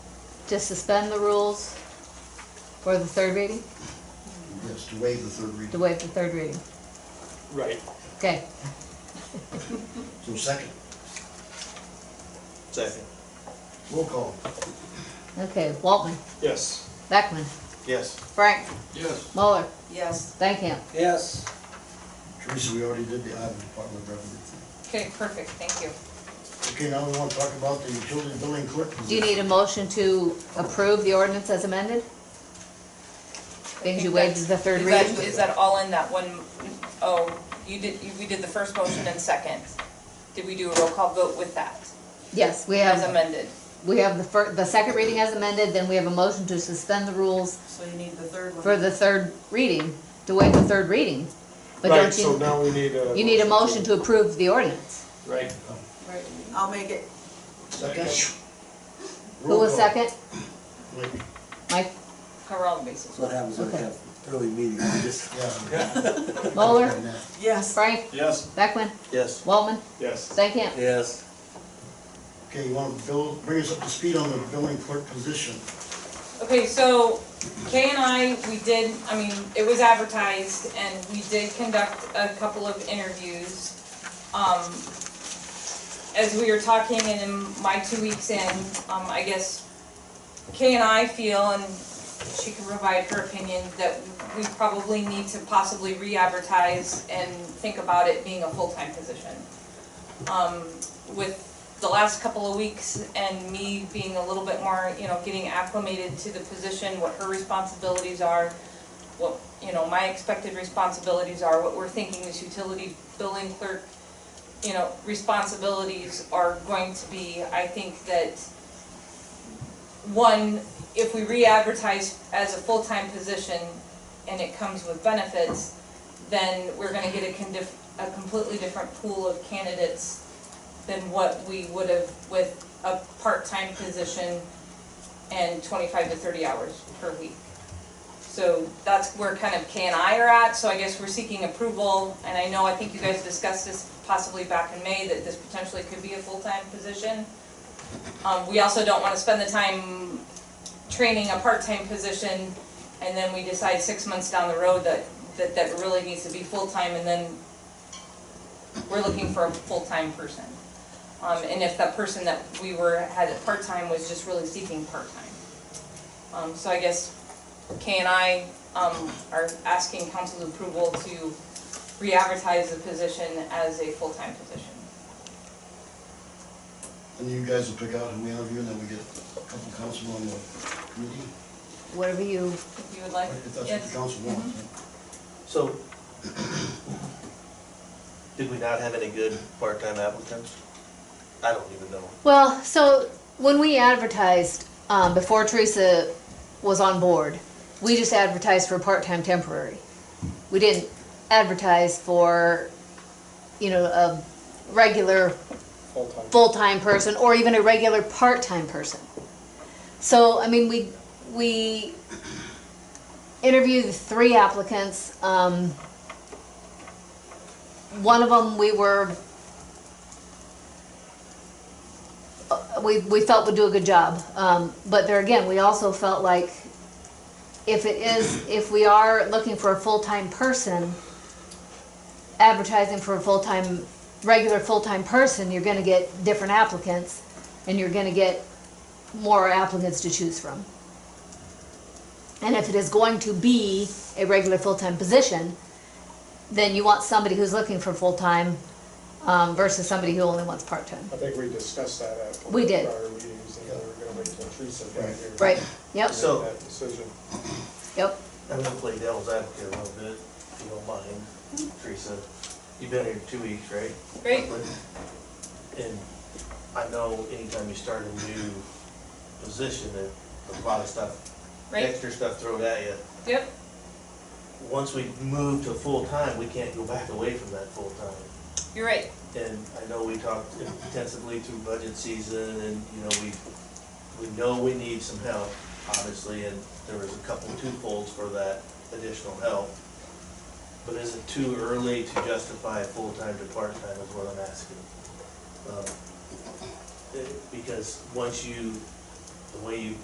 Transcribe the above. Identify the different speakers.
Speaker 1: to suspend the rules for the third reading,
Speaker 2: Yes, to waive the third
Speaker 1: to
Speaker 2: reading.
Speaker 1: waive the third reading.
Speaker 3: Right,
Speaker 1: Okay,
Speaker 2: So second,
Speaker 3: second.
Speaker 2: roll call.
Speaker 1: okay, Waltman,
Speaker 3: Yes.
Speaker 1: Beckman,
Speaker 3: Yes.
Speaker 1: Frank,
Speaker 4: Yes.
Speaker 1: Muller,
Speaker 5: Yes.
Speaker 1: Stankham.
Speaker 3: Yes.
Speaker 2: Teresa, we already did the Iowa Department of Revenue. thing.
Speaker 5: Okay, perfect, thank you.
Speaker 2: Okay, now we want to talk about the utility billing clerk.
Speaker 1: Do you need a motion to approve the ordinance as amended? Because you waived the third
Speaker 5: Is that-
Speaker 1: reading?
Speaker 5: Is that all in that one, oh, you did, you- we did the first motion and second. Did we do a roll call vote with that,
Speaker 1: Yes, we
Speaker 5: as
Speaker 1: have,
Speaker 5: amended?
Speaker 1: we have the fir, the second reading as amended, then we have a motion to suspend the rules
Speaker 6: So you need the third one.
Speaker 1: for the third reading, to waive the third reading. But
Speaker 3: Right,
Speaker 1: don't
Speaker 3: so
Speaker 1: you,
Speaker 3: now we need a.
Speaker 1: you need a motion to approve the ordinance.
Speaker 3: Right.
Speaker 6: Right, I'll make it.
Speaker 2: Second.
Speaker 1: Who
Speaker 2: Roll
Speaker 1: was
Speaker 2: call.
Speaker 1: second?
Speaker 2: Wait,
Speaker 1: Mike,
Speaker 5: Cover all the bases.
Speaker 7: That's what happens when we have early meetings, we just,
Speaker 2: Yeah.
Speaker 1: Muller,
Speaker 2: And, uh,
Speaker 6: Yes.
Speaker 1: Frank,
Speaker 3: Yes.
Speaker 1: Beckman,
Speaker 7: yes.
Speaker 1: Waltman,
Speaker 3: Yes.
Speaker 1: Stankham.
Speaker 7: Yes.
Speaker 2: Okay, you want to bill, bring us up to speed on the billing clerk position.
Speaker 5: Okay, so Kay and I, we did, I mean, it was advertised and we did conduct a couple of interviews. Um, as we were talking and in my two weeks in, um, I guess Kay and I feel, and she can provide her opinion, that we probably need to possibly re-advertise and think about it being a full-time position. Um, with the last couple of weeks and me being a little bit more, you know, getting acclimated to the position, what her responsibilities are, what, you know, my expected responsibilities are, what we're thinking this utility billing clerk, you know, responsibilities are going to be, I think that one, if we re-advertise as a full-time position and it comes with benefits, then we're gonna get a condif, a completely different pool of candidates than what we would have with a part-time position and twenty-five to thirty hours per week. So that's where kind of K and I are at, so I guess we're seeking approval, and I know, I think you guys discussed this possibly back in May, that this potentially could be a full-time position. Um, we also don't wanna spend the time training a part-time position, and then we decide six months down the road that, that, that really needs to be full-time, and then we're looking for a full-time person. Um, and if that person that we were, had at part-time was just really seeking part-time. Um, so I guess Kay and I, um, are asking council's approval to re-advertise the position as a full-time position.
Speaker 2: And you guys will pick out who we interview, and then we get a couple council on the committee,
Speaker 1: Whatever you,
Speaker 5: If you would like,
Speaker 2: if that's what the
Speaker 5: yes,
Speaker 2: council wants.
Speaker 4: So, did we not have any good part-time applicants? I don't even know.
Speaker 1: well, so when we advertised, um, before Teresa was on board, we just advertised for part-time temporary. We didn't advertise for, you know, a regular
Speaker 3: Full-time.
Speaker 1: full-time person or even a regular part-time person. So, I mean, we, we interviewed three applicants. Um, one of them we were, uh, we, we felt would do a good job. Um, but there again, we also felt like if it is, if we are looking for a full-time person, advertising for a full-time, regular full-time person, you're gonna get different applicants, and you're gonna get more applicants to choose from. And if it is going to be a regular full-time position, then you want somebody who's looking for full-time, um, versus somebody who only wants part-time.
Speaker 3: I think we discussed that at. one of
Speaker 1: We
Speaker 3: the
Speaker 1: did.
Speaker 3: Prior meetings, and we were gonna wait till Teresa got here.
Speaker 1: Right, yep,
Speaker 3: to
Speaker 4: So-
Speaker 3: Make that decision.
Speaker 1: yep,
Speaker 4: I'm gonna play devil's advocate a little bit, if you don't mind, Teresa. You've been here two weeks, right?
Speaker 5: great,
Speaker 4: And I know anytime you start a new position, there's a lot of stuff,
Speaker 5: right,
Speaker 4: extra stuff thrown at you.
Speaker 5: yep,
Speaker 4: Once we move to full-time, we can't go back away from that full-time.
Speaker 5: you're right,
Speaker 4: And I know we talked intensively through budget season and, you know, we, we know we need some help, obviously, and there was a couple twofolds for that additional help. But is it too early to justify full-time to part-time is what I'm asking? Um, eh, Because once you, the way you